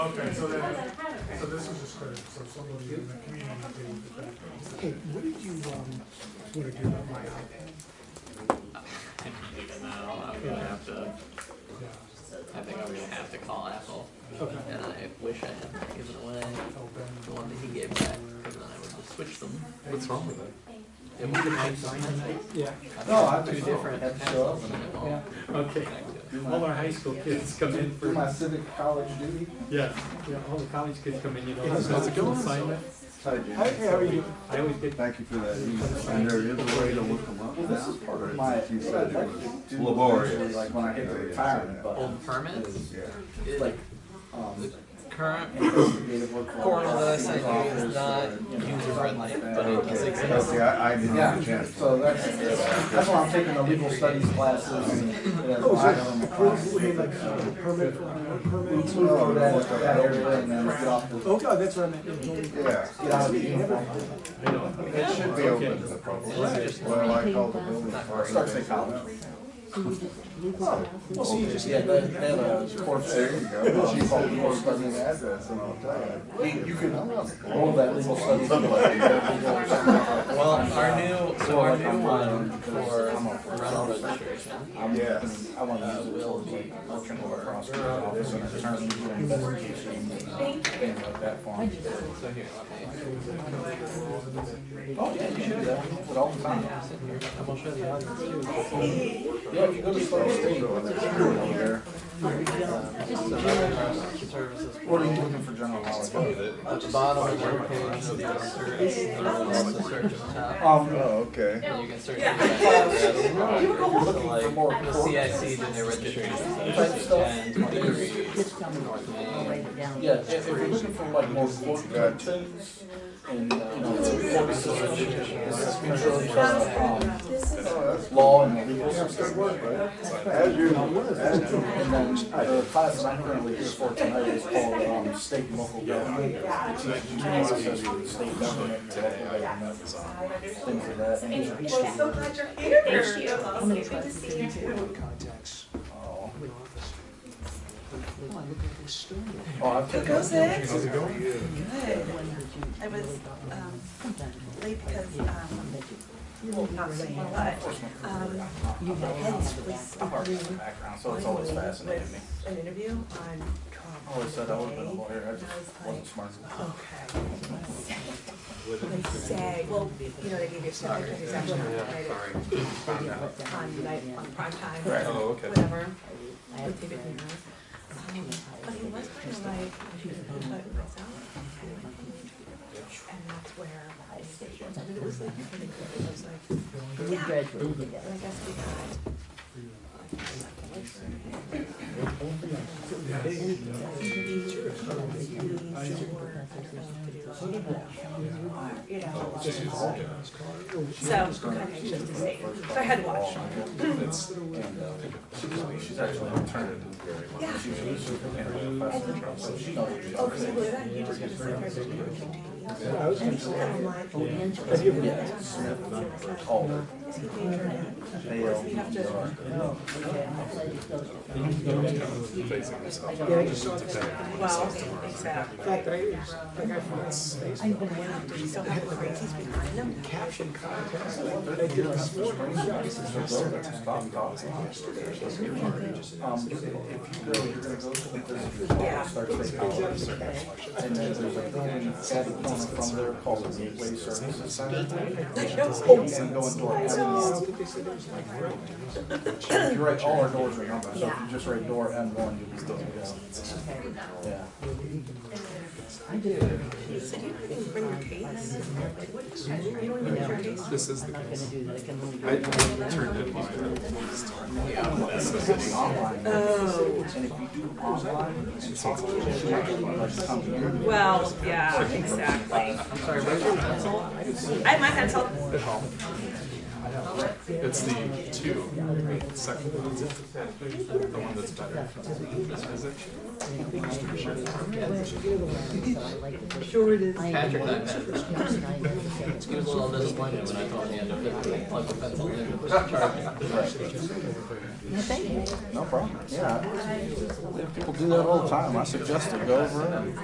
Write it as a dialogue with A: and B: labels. A: Okay, so
B: I
A: then,
B: don't have it
A: so
B: right.
A: this is just credit, so somebody in the community gave the credit.
C: Okay, what did you, um, what did you, my,
D: I mean, even now, I'm gonna have to,
C: yeah,
D: I think I'm gonna have to call Apple.
C: okay,
D: And I wish I hadn't given away the one that he gave back, because then I would have switched them.
E: What's wrong with it?
D: It would have
C: yeah.
D: been
E: No, I
D: two
E: just-
D: different.
E: had to show up and-
D: Yeah.
F: Okay, all our high school kids come in
E: Do
F: for,
E: my civic college duty.
F: yeah, yeah, all the college kids come in, you know.
C: How's it
F: for
C: going?
F: assignment.
E: Hi, Jim.
C: Hey, how are you?
F: né? I always get,
G: Thank you for that. And there is a way to look them up
E: Well, this is part of my,
G: Or is it- you
E: what I'd
G: said it
E: like to
G: was
E: do.
G: laborious.
E: eventually, Like when I hit the
G: Yeah, yeah,
E: retirement
G: yeah.
E: button,
D: Old permits,
G: Yeah.
D: it-
E: like,
D: the
E: um,
D: current
E: investigative work.
D: portal that I sent you is not
E: Office, uh, you know,
D: user friendly,
E: like that.
D: but it does
G: Okay,
D: exist.
G: okay, I, I didn't
E: Yeah,
G: have a chance.
E: so that's, that's why I'm taking the legal studies classes and that's
C: Oh, is
E: why I
C: that
E: have them across.
C: approved, you mean like uh, permit, for- uh, permit?
E: So that, that area and then get off the,
C: Oh, God, that's what I meant.
G: Yeah,
E: get out of the uniform.
F: I know,
G: it should be open to the public. Well, I called the building department.
E: Starts at college.
C: Well, so you just.
E: Oh, Yeah, they, they have a sports
G: There
E: area.
G: you go. She called the studying address and I'll tell you. You can.
C: Oh,
E: All that legal studies.
D: Well, our new, so
E: Or
D: our
E: like
D: new
E: I'm
D: one
E: fine,
D: for
E: because I'm a-
D: rental registration,
E: I'm-
G: Yes.
E: I want to use it for the electrical prosecutor office and attorney and investigation and things like that for him.
D: so here, let me,
E: Oh, yeah, you should do that. But all the time.
D: I will show the audience too.
E: Yeah, if you go to Slow State, over there.
D: So veteran services.
E: What are you looking for general knowledge?
D: At the bottom of the webpage of the officer is the search of top.
G: Oh,
E: Um,
G: okay.
D: And you can search. for
E: for
D: Like
E: more.
D: the CIC did their registration.
E: Type stuff.
D: And degrees.
E: Yeah, if if you're looking for like more quote
G: Gotcha.
E: and, uh, you know, quote research,
G: Oh, that's
E: um, law and the legal
G: good
E: system.
G: work, right? As usual, as usual.
E: And then the class that I'm currently here for tonight is called um, State and Local Government. It's a process for the state government, and local government, things like that. And it's each
B: Well, so glad you're here. Thank you. It's good to see you.
C: Contacts.
E: Oh,
C: in office. Oh, I look like a stone.
E: I've
B: Who
E: taken
B: goes in?
G: How's it going?
B: Good. I was, um, late because, um, well, not late, but, um, my head's was
E: a part
B: spinning.
E: in the background, so it's always fascinating me. Oh,
B: With An interview on Trump.
E: I Always said I would have been a lawyer, I just wasn't smart.
B: Okay. They say, well, you know, they gave you some different examples on night, on prime time.
F: oh, okay.
B: whatever. With David Neal. Um, But he was kind of like, but it was out. And that's where, I- and it was like, it was like, yeah. And I guess we got. You know. So, kind of just to see. So I had to watch.
E: She's actually an alternative.
B: Yeah.
E: She was a superintendent professor, so she knows what she's
B: Oh,
E: doing.
B: because you were that, you just gotta sit there and do it.
C: I was gonna say,
B: And I'm like, oh, man.
E: Older.
B: Is he dangerous?
E: They
B: Or does he have to?
C: yeah, I just saw this fact
B: Well, exactly.
C: that I, that guy from that space. I
B: You still have the crazies behind them.
C: did this morning.
E: Um, if you go, you're gonna go to the visitors
B: Yeah.
E: hall, start taking photos. And then there's a building at the corner from there called the Gateway Services Center.
B: I know.
E: Oh, and go into an M1.
C: They said it was like,
E: If you write, all our doors are numbered, so if you just write door M1, you'll be good to go. Yeah.
B: You said you couldn't bring your case. Like, what is that? You don't even have your case.
H: This is the case.
B: Oh,
E: And if you do online and talk to the children, like come here.
B: well, yeah, exactly.
D: I'm sorry, where's your pencil?
B: I have my pencil.
E: I
C: It's the two, right, second one, is it? the one that's better. Is it?
H: Sure it is.
D: Patrick and I met. He was a little disappointed when I told him he had to plug the pencil in and just charge it.
E: No problem, yeah. People do that all the time. I suggest it, go over it.